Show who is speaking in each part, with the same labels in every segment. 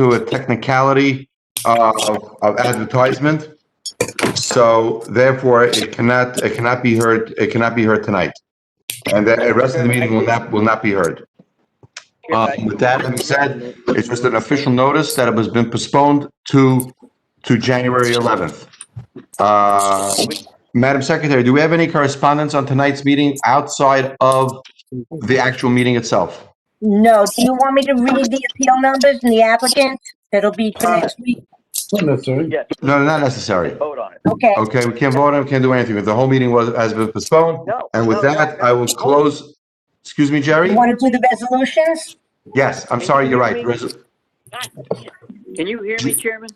Speaker 1: to a technicality uh, of of advertisement. So therefore, it cannot, it cannot be heard, it cannot be heard tonight. And the the rest of the meeting will not, will not be heard. Um, With that being said, it's just an official notice that it has been postponed to, to January 11th. Uh, Madam Secretary, do we have any correspondence on tonight's meeting outside of the actual meeting itself?
Speaker 2: No, do you want me to read the appeal numbers and the applicants? That'll be for next
Speaker 1: Uh,
Speaker 2: week.
Speaker 3: Not necessary.
Speaker 4: Yes,
Speaker 1: No, not necessary.
Speaker 4: vote on it.
Speaker 2: Okay,
Speaker 1: Okay, we can't vote on it, can't do anything. The whole meeting was, has been postponed.
Speaker 4: No,
Speaker 1: And with
Speaker 4: no, no.
Speaker 1: that, I will close, excuse me,
Speaker 2: you
Speaker 1: Jerry?
Speaker 2: want to do the resolutions?
Speaker 1: Yes, I'm sorry, you're right. Res-
Speaker 4: Can you hear me, Chairman?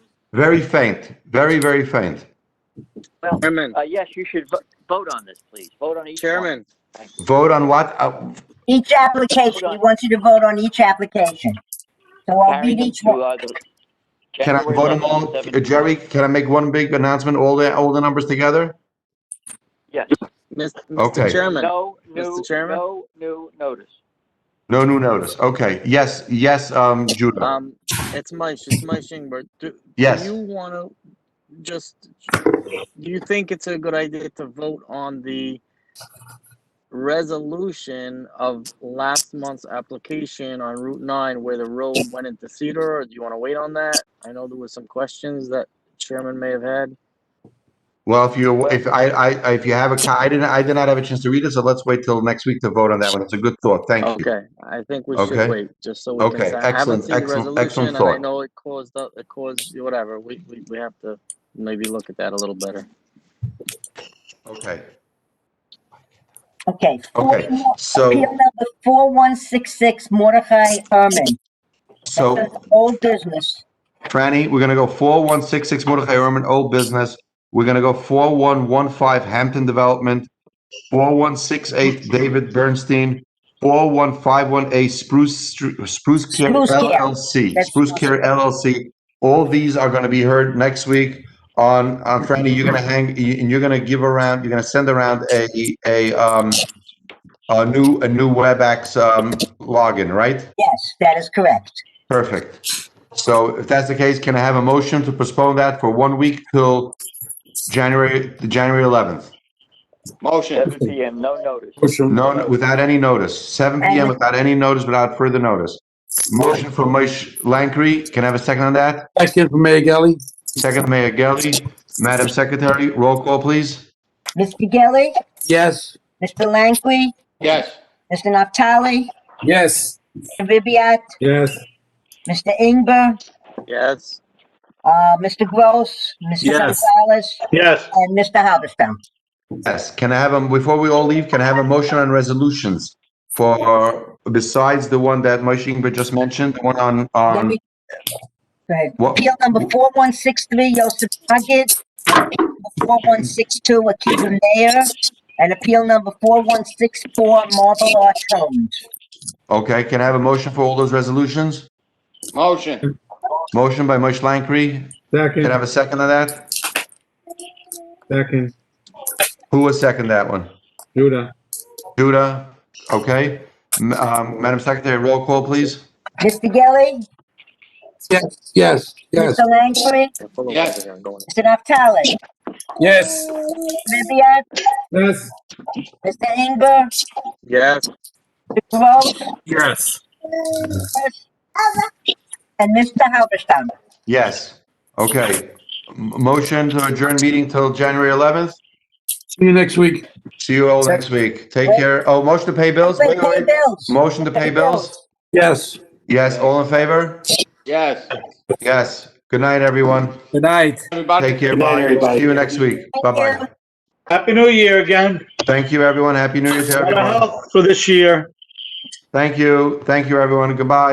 Speaker 1: Very faint, very, very faint.
Speaker 4: Well,
Speaker 5: Chairman,
Speaker 4: uh, yes, you should vo- vote on this, please. Vote on each one.
Speaker 5: Chairman,
Speaker 1: Vote on what? Uh,
Speaker 2: Each application, he wants you to vote on each application. So I'll
Speaker 4: Carry
Speaker 2: read
Speaker 4: them
Speaker 2: each
Speaker 4: to,
Speaker 2: one.
Speaker 4: uh, the-
Speaker 1: Can I
Speaker 4: January
Speaker 1: vote them
Speaker 4: 11th,
Speaker 1: all?
Speaker 4: seven-
Speaker 1: Uh, Jerry, can I make one big announcement, all the, all the numbers together?
Speaker 4: Yes,
Speaker 5: Mis-
Speaker 1: Okay.
Speaker 5: Mr. Chairman,
Speaker 4: no new,
Speaker 5: Mr. Chairman?
Speaker 4: no new notice.
Speaker 1: No new notice. Okay, yes, yes, um, Judah.
Speaker 5: um, it's Mike, it's Mike Shingberg. Do, do
Speaker 1: Yes.
Speaker 5: you wanna just, do you think it's a good idea to vote on the resolution of last month's application on Route nine where the road went into Cedar, or do you wanna wait on that? I know there was some questions that Chairman may have had.
Speaker 1: Well, if you, if I, I, I- if you have a, co- I didn't, I did not have a chance to read it, so let's wait till next week to vote on that one. It's a good thought. Thank you.
Speaker 5: Okay, I think we
Speaker 1: Okay.
Speaker 5: should wait, just so we
Speaker 1: Okay,
Speaker 5: can, I haven't
Speaker 1: excellent,
Speaker 5: seen the
Speaker 1: excellent, excellent
Speaker 5: resolution, and I
Speaker 1: thought.
Speaker 5: know it caused, up- it caused, whatever, we, we, we have to maybe look at that a little better.
Speaker 1: Okay,
Speaker 2: Okay.
Speaker 1: okay.
Speaker 2: Appeal
Speaker 1: So,
Speaker 2: number 4166 Mordechai Herman.
Speaker 1: so
Speaker 2: Old business.
Speaker 1: Franny, we're gonna go four one six six Mordechai Urban, old business. We're gonna go four one one five Hampton Development, four one six eight David Bernstein, four one five one A Spruce Stru- Spruce Care
Speaker 2: Spruce Care.
Speaker 1: LLC,
Speaker 2: That's-
Speaker 1: Spruce Care LLC. All these are gonna be heard next week on, on Franny, you're gonna hang, you- and you're gonna give around, you're gonna send around a, a, um, a new, a new WebEx, um, login, right?
Speaker 2: Yes, that is correct.
Speaker 1: Perfect. So if that's the case, can I have a motion to postpone that for one week till January, the January 11th?
Speaker 4: Seven PM, no notice.
Speaker 3: Motion.
Speaker 1: No, no, without any notice, 7 PM without any notice, without further notice. Motion for Moshe Langkry, can I have a second on that?
Speaker 3: Second from Mayor Gelli.
Speaker 1: Second, Mayor Gelli. Madam Secretary, roll call, please.
Speaker 2: Mr. Gelli,
Speaker 3: Yes.
Speaker 2: Mr. Langley,
Speaker 6: Yes.
Speaker 2: Mr. Naftali,
Speaker 3: Yes.
Speaker 2: Mr. Ribbiat,
Speaker 3: Yes.
Speaker 2: Mr. Ingber,
Speaker 5: Yes,
Speaker 2: uh, Mr. Gross, Mr.
Speaker 3: Yes.
Speaker 2: Gonzalez,
Speaker 6: Yes.
Speaker 2: and Mr. Halberstam.
Speaker 1: Yes, can I have, a before we all leave, can I have a motion on resolutions for, besides the one that Moshe Ingber just mentioned, the one on,
Speaker 2: Let
Speaker 1: on,
Speaker 2: me- Go ahead.
Speaker 1: Um, what,
Speaker 2: Appeal number 4163, Joseph Puckett. 4162, Akiva Mayer. And appeal number 4164, Marvel Arch Homes.
Speaker 1: okay, can I have a motion for all those resolutions?
Speaker 6: Motion.
Speaker 1: Motion by Moshe Langkry. Can I
Speaker 3: Second,
Speaker 1: have a second on that?
Speaker 3: second,
Speaker 1: Who was second that one?
Speaker 3: Judah.
Speaker 1: Duda? Okay. M- um, Madam Secretary, roll call, please.
Speaker 2: Mr. Gelli,
Speaker 3: Yes, yes, yes.
Speaker 2: Mr. Langley,
Speaker 6: Yes.
Speaker 2: Mr. Naftali,
Speaker 3: Yes.
Speaker 2: Ribbiat,
Speaker 3: Yes.
Speaker 2: Mr. Ingber,
Speaker 5: yes,
Speaker 2: Mr. Gross,
Speaker 3: Yes.
Speaker 2: and Mr. Halberstam.
Speaker 1: Yes. Okay. M- Motion to adjourn meeting till January 11th.
Speaker 3: See you next week.
Speaker 1: See you all next week. Take care. Oh, motion to pay bills?
Speaker 2: Wait,
Speaker 1: Wait,
Speaker 2: pay
Speaker 1: wait.
Speaker 2: bills.
Speaker 1: Motion to pay bills?
Speaker 3: Yes.
Speaker 1: Yes, all in favor?
Speaker 6: Yes.
Speaker 1: Yes. Good night, everyone.
Speaker 3: Good night.
Speaker 6: Everybody.
Speaker 1: Take care. Bye. See you next week.
Speaker 2: Thank you.
Speaker 1: Bye-bye.
Speaker 7: Happy New Year again.
Speaker 1: Thank you, everyone. Happy New Year to
Speaker 7: A lot of
Speaker 1: everyone.
Speaker 7: health for this year.
Speaker 1: Thank you. Thank you, everyone. Goodbye.